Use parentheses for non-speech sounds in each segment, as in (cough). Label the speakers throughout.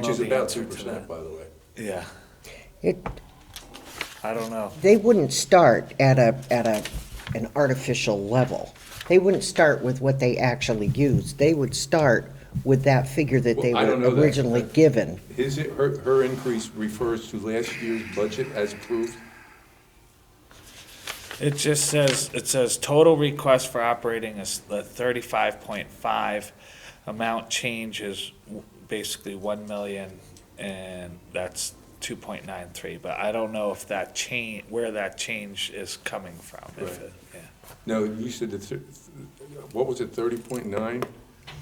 Speaker 1: Which is
Speaker 2: Well, the
Speaker 1: about two
Speaker 2: answer was
Speaker 1: percent, by the way.
Speaker 2: Yeah,
Speaker 3: It,
Speaker 2: I don't know.
Speaker 3: they wouldn't start at a, at a, an artificial level. They wouldn't start with what they actually used. They would start with that figure that they
Speaker 1: Well, I don't know
Speaker 3: were
Speaker 1: that.
Speaker 3: originally given.
Speaker 1: His, her, her increase refers to last year's budget as approved.
Speaker 2: It just says, it says total request for operating is the thirty-five point five. Amount change is w- basically one million and that's two point nine three, but I don't know if that change, where that change is coming from. if
Speaker 1: Right.
Speaker 2: it- yeah.
Speaker 1: No, you said it's, what was it, thirty point nine?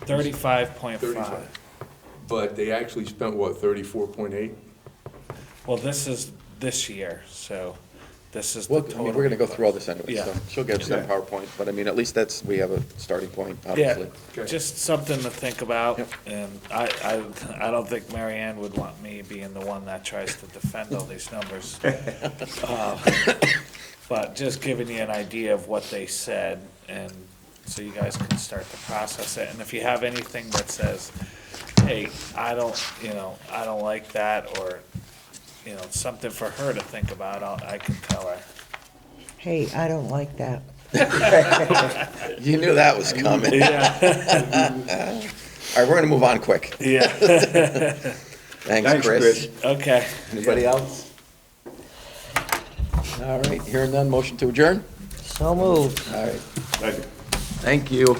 Speaker 2: Thirty-five point five.
Speaker 1: 35. But they actually spent, what, thirty-four point eight?
Speaker 2: Well, this is this year, so this is the
Speaker 4: Well, I
Speaker 2: total.
Speaker 4: mean, we're gonna go through all this anyway,
Speaker 2: Yeah.
Speaker 4: so she'll get us that PowerPoint, but I mean, at least that's, we have a starting point,
Speaker 2: Yeah,
Speaker 4: obviously.
Speaker 1: Okay.
Speaker 2: just something to think about,
Speaker 4: Yep.
Speaker 2: and I, I, I don't think Mary Ann would want me being the one that tries to defend all these numbers. Uh, But just giving you an idea of what they said, and so you guys can start to process it, and if you have anything that says, hey, I don't, you know, I don't like that, or, you know, something for her to think about, I'll, I can tell her.
Speaker 3: Hey, I don't like that.
Speaker 4: You knew that was coming. All
Speaker 2: Yeah,
Speaker 4: right, we're gonna move on quick.
Speaker 2: yeah,
Speaker 4: Thanks, Chris.
Speaker 2: (laughs) okay.
Speaker 4: Anybody else? All right, hearing none, motion to adjourn?
Speaker 3: So moved.
Speaker 4: All right. Thank you.